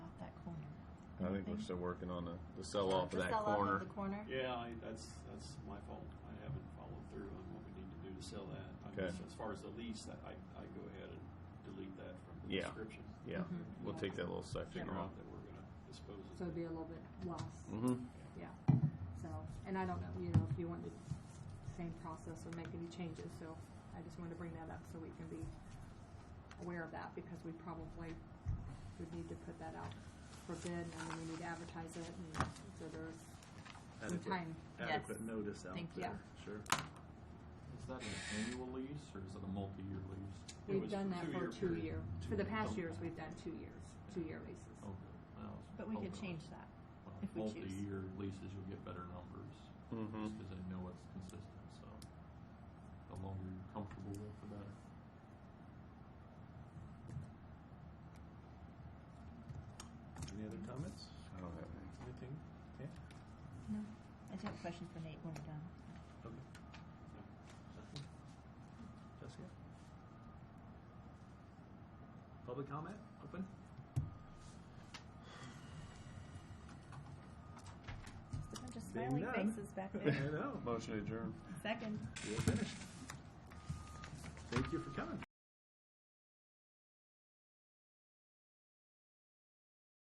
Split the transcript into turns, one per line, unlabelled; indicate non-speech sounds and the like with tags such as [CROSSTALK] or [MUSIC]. I think we're still working on the, the sell-off of that corner.
The corner.
Yeah, I, that's, that's my fault. I haven't followed through on what we need to do to sell that. I guess
Okay.
As far as the lease, I, I I go ahead and delete that from the
Yeah.
description.
Mm-hmm.
Yeah, we'll take that little section
Figure
off.
out that Mm-hmm. we're gonna dispose
So
of
it'd
it.
be a little bit less.
Mm-hmm.
Yeah. So, and I don't know, you know, if you want the same process or make any changes, so I just wanted to bring that up so we can be aware of that because we probably would need to put that out for bid and then we need to advertise it and so there's some
Adequate.
time.
adequate notice out
Thank you.
there, sure.
Is that an annual lease or is it a multi-year lease?
It
We've
was
done that for
two-year
two
period.
year, for the past years, we've done two years, two-year leases.
Okay. Well, it's-
But we could
okay.
change that.
Well,
if we choose.
Multi-year leases, you'll get better numbers,
Mm-hmm.
just because I know it's consistent, so the longer you're comfortable with, the better.
Any other comments?
I don't have any.
Anything? Okay.
No, I do have a question for Nate when we're done.
Okay. Nothing? Jessica? Public comment, open?
Just a bunch of
Being
smiling
done.
faces back
[LAUGHS] I
there.
know,
Motion adjourned.
Second.
we're finished. Thank you for coming.